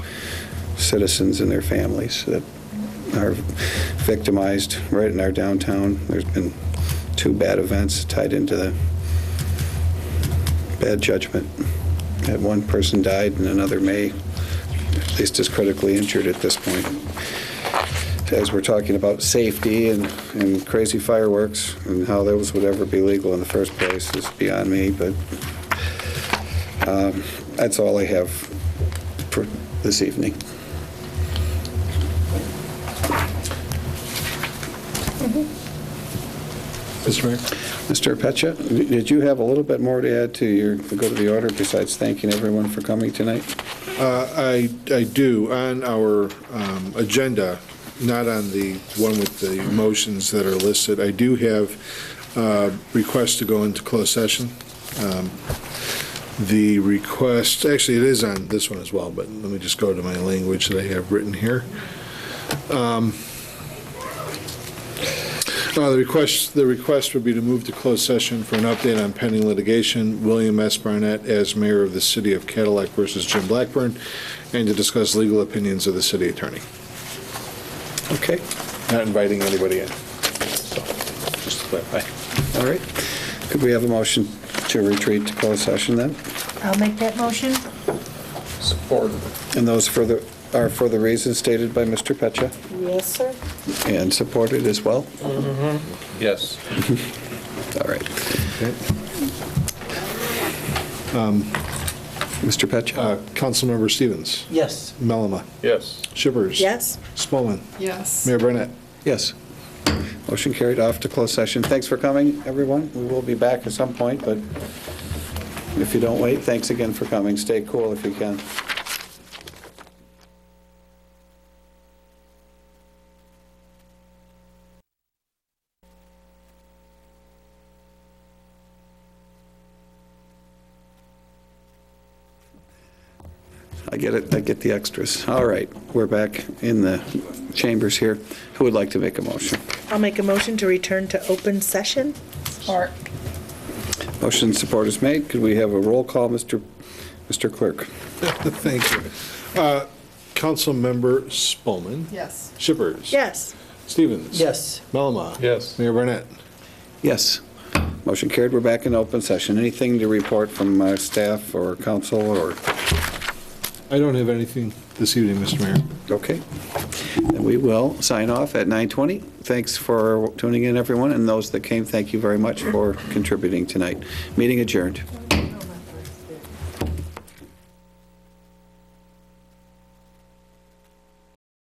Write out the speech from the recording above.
citizens and their families that are victimized right in our downtown. There's been two bad events tied into the bad judgment. That one person died and another may, at least is critically injured at this point. As we're talking about safety and, and crazy fireworks and how those would ever be legal in the first place is beyond me, but um, that's all I have for this evening. Mr. Mayor? Mr. Pecha, did you have a little bit more to add to your, to go to the order besides thanking everyone for coming tonight? Uh, I, I do, on our um, agenda, not on the one with the motions that are listed, I do have uh, requests to go into closed session. Um, The request, actually, it is on this one as well, but let me just go to my language that I have written here. Uh, The request, the request would be to move to closed session for an update on pending litigation, William S. Barnett as mayor of the city of Cadillac versus Jim Blackburn, and to discuss legal opinions of the city attorney. Okay, Not inviting anybody in. So, Just to clarify. all right. Could we have a motion to retreat to closed session then? I'll make that motion. Support. And those further, are for the reasons stated by Mr. Pecha Yes, sir. and supported as well? Yes. All right. Um, Mr. Pecha? Uh, Councilmember Stevens, Yes. Melama, Yes. Shippers. Yes? Spelman, Yes. Mayor Barnett. Yes. Motion carried off to closed session. Thanks for coming, everyone. We will be back at some point, but if you don't wait, thanks again for coming. Stay cool if you can. I get it, I get the extras. All right, we're back in the chambers here. Who would like to make a motion? I'll make a motion to return to open session. Support. Motion and support is made. Could we have a roll call, Mr. Mr. Clerk? Thank you. Uh, Councilmember Spelman, Yes. Shippers. Yes. Stevens. Yes. Melama. Yes. Mayor Barnett. Yes. Motion carried. We're back in open session. Anything to report from uh, staff or council or, I don't have anything this evening, Mr. Mayor. okay? And we will sign off at 9:20. Thanks for tuning in, everyone, and those that came, thank you very much for contributing tonight. Meeting adjourned.